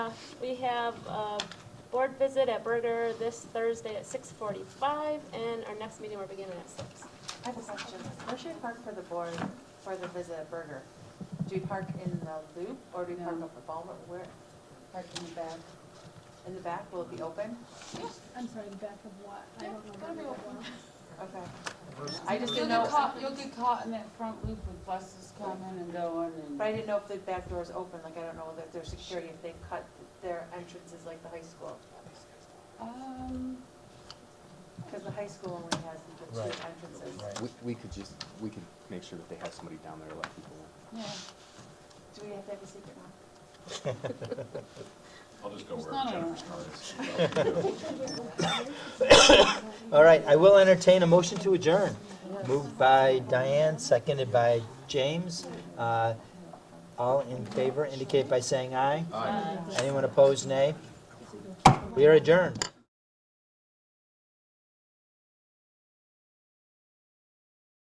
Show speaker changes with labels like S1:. S1: We have a board visit at Berger this Thursday at six forty-five, and our next meeting we're beginning at six.
S2: I have a question. Where should we park for the board, for the visit at Burger? Do we park in the loop or do we park
S3: No.
S2: up at Ballmer? Where,
S3: Park in the back.
S2: in the back? Will it be open?
S4: I'm sorry, the back of what? I don't know.
S5: gotta be
S4: that
S5: open.
S4: well.
S2: Okay. I just
S3: You'll
S2: didn't
S3: get
S2: know,
S3: caught, you'll get caught in that front loop with buses coming and going
S2: but I
S3: and.
S2: didn't know if the back door is open. Like, I don't know that there's security, if they cut their entrances like the high school.
S3: Um,
S2: Because the high school only has the two
S6: Right.
S2: entrances.
S6: Right.
S7: We, we could just, we could make sure that they have somebody down there to let people in.
S3: yeah,
S2: Do we have to have a secret one?
S8: I'll just go
S3: It's
S8: where
S3: not a-
S8: Jennifer's car is.
S6: All right, I will entertain a motion to adjourn. Moved by Diane, seconded by James. Uh, All in favor indicate by saying aye. Aye. Anyone opposed, nay? We are adjourned.